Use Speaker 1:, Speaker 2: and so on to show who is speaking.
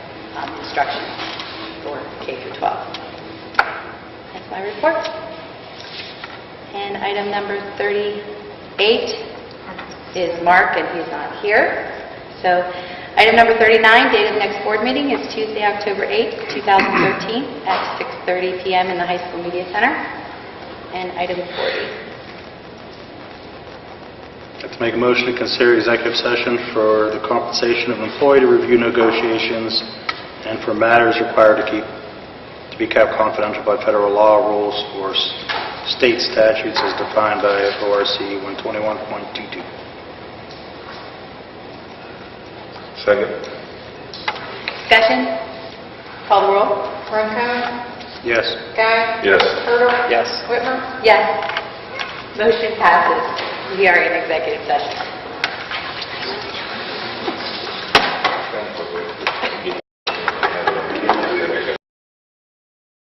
Speaker 1: um, instruction for K through 12. That's my report. And item number 38 is Mark, and he's not here. So item number 39, date of next board meeting is Tuesday, October 8th, 2013, at 6:30 PM in the High School Media Center. And item 40.
Speaker 2: I'd like to make a motion to consider executive session for the compensation of employee to review negotiations and for matters required to keep, to be kept confidential by federal law rules or s- state statutes as defined by ORC 121.22.
Speaker 3: Second.
Speaker 1: Discussion? Call the roll.
Speaker 4: Ronco,
Speaker 2: Yes.
Speaker 4: Guy,
Speaker 3: Yes.
Speaker 4: Turtle,
Speaker 2: Yes.
Speaker 4: Whitmer.
Speaker 1: Yes. Motion passes. We are in executive session.